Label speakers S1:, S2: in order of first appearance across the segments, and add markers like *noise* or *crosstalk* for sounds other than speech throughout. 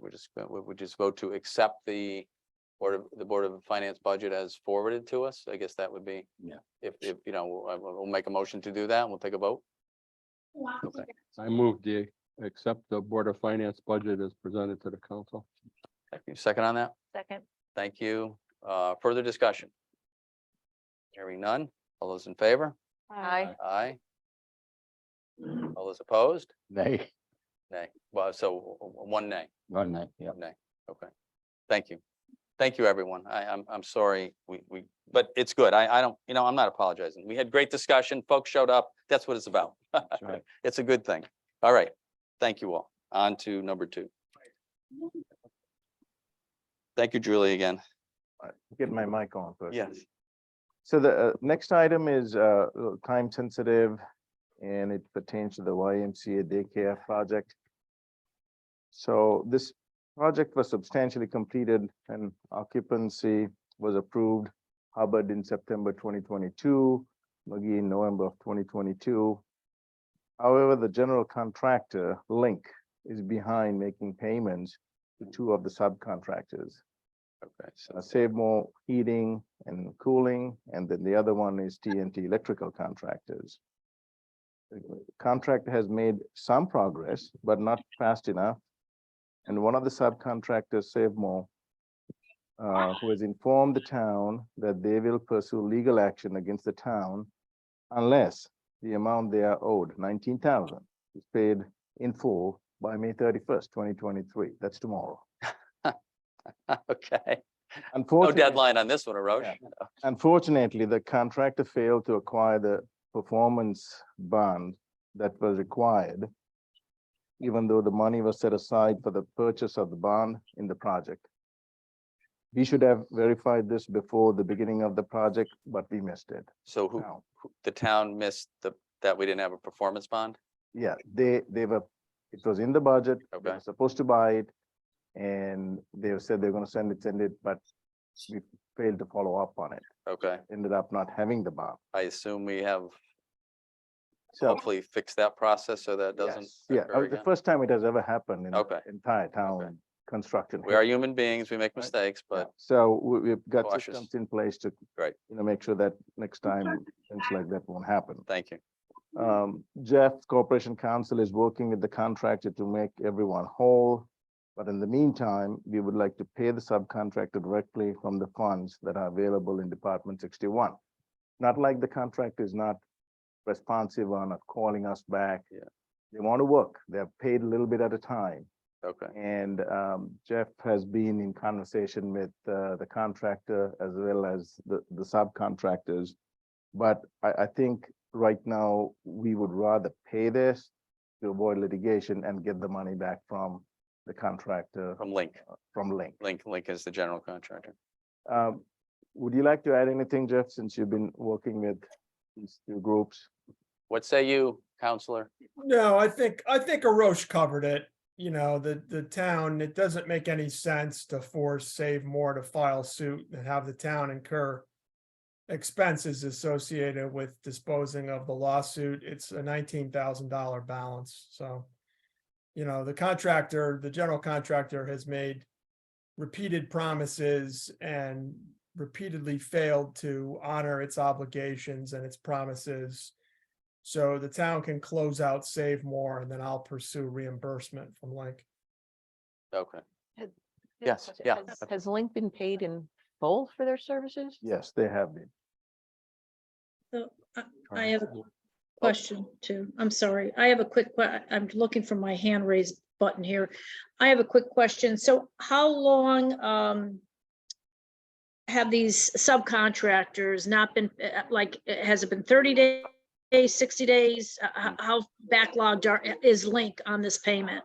S1: we're just, uh, we would just vote to accept the Board of, the Board of Finance budget as forwarded to us. I guess that would be.
S2: Yeah.
S1: If, if, you know, we'll- I- we'll, we'll make a motion to do that. and We'll take a vote.
S3: Wow.
S4: I move the, accept the Board of Finance budget as presented to the council.
S1: Thank you. Second on that?
S3: Second,
S1: Thank you. Uh, further discussion? Hearing none. All those in favor?
S3: aye,
S1: Aye. All those opposed?
S2: They,
S1: Nay. Well, so w- w- one nay.
S2: one night, yeah.
S1: Nay. Okay. Thank you. Thank you, everyone. I, I'm, I'm sorry. We, we, but it's good. I, I don't, you know, I'm not apologizing. We had great discussion. Folks showed up. That's what it's about.
S2: that's right.
S1: *laughs* It's a good thing. All right. Thank you all. On to number two. Thank you, Julie, again.
S5: get my mic on first.
S1: Yes.
S5: So the uh, next item is uh, uh, time sensitive and it pertains to the YMCA daycare project. So this project was substantially completed and occupancy was approved. Hubbard in September twenty twenty-two, McGee in November of twenty twenty-two. However, the general contractor, Link, is behind making payments to two of the subcontractors
S1: Okay, so
S5: uh, Save More Heating and Cooling, and then the other one is TNT Electrical Contractors. The Contractor has made some progress, but not fast enough. And one of the subcontractors, Save More, uh, who has informed the town that they will pursue legal action against the town unless the amount they are owed, nineteen thousand, is paid in full by May thirty-first, twenty twenty-three. That's tomorrow.
S1: *laughs* Okay, no
S5: Unfortunately.
S1: deadline on this one, Arash.
S5: Unfortunately, the contractor failed to acquire the performance bond that was required. Even though the money was set aside for the purchase of the bond in the project. We should have verified this before the beginning of the project, but we missed it.
S1: So who,
S5: Now,
S1: who- the town missed the, that we didn't have a performance bond?
S5: yeah, they, they were, it was in the budget. they were
S1: Okay.
S5: Supposed to buy it. And they said they're gonna send it, send it, but we failed to follow up on it.
S1: Okay,
S5: Ended up not having the bond.
S1: I assume we have
S5: So.
S1: hopefully fixed that process so that doesn't.
S5: Yes, Yeah,
S1: occur
S5: uh, the
S1: again.
S5: first time it has ever happened in
S1: Okay.
S5: the entire town construction.
S1: We are human beings, we make mistakes,
S5: Yeah,
S1: but
S5: So we, we've got
S1: cautious.
S5: systems in place to.
S1: Right.
S5: You know, make sure that next time things like that won't happen.
S1: thank you.
S5: Um, Jeff, Corporation Council is working with the contractor to make everyone whole. But in the meantime, we would like to pay the subcontractor directly from the funds that are available in Department sixty-one. Not like the contractor is not responsive or not calling us back.
S1: Yeah.
S5: They want to work. They're paid a little bit at a time.
S1: Okay,
S5: And um, Jeff has been in conversation with uh, the contractor as well as the, the subcontractors. But I, I think right now, we would rather pay this to avoid litigation and get the money back from the contractor
S1: from Link,
S5: from Link.
S1: Link, Link is the general contractor.
S5: Um, Would you like to add anything, Jeff, since you've been working with these two groups?
S1: What say you, counselor?
S6: No, I think, I think Aroche covered it. You know, the, the town, it doesn't make any sense to force Save More to file suit and have the town incur expenses associated with disposing of the lawsuit. It's a nineteen thousand dollar balance, so. You know, the contractor, the general contractor has made repeated promises and repeatedly failed to honor its obligations and its promises. So the town can close out, save more, and then I'll pursue reimbursement from Link.
S1: Okay, Yes,
S3: Has-
S1: yeah.
S3: has- Has Link been paid in full for their services?
S5: Yes, they have been.
S7: So I- I have a question too. I'm sorry. I have a quick, que- I'm looking for my hand raised button here. I have a quick question. So how long um have these subcontractors not been, uh, like, uh, has it been 30 days, 60 days? Uh, h- How backlogged are, is Link on this payment?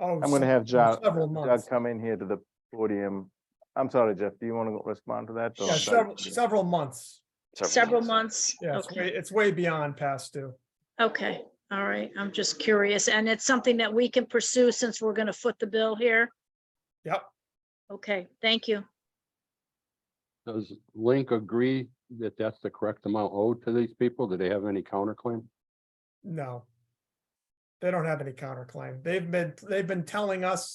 S6: Oh,
S5: I'm gonna
S6: se-
S5: have John,
S6: Several
S5: Doug
S6: months,
S5: come in here to the podium. I'm sorry, Jeff, do you want to respond to that? or
S6: yeah,
S5: should I-
S6: several, several months.
S7: Several months?
S6: Yeah, it's
S7: Okay.
S6: way, it's way beyond past due.
S7: Okay, all right. I'm just curious. And it's something that we can pursue since we're going to foot the bill here?
S6: Yep.
S7: Okay, thank you.
S4: Does Link agree that that's the correct amount owed to these people? Do they have any counterclaim?
S6: No, They don't have any counterclaim. They've been, they've been telling us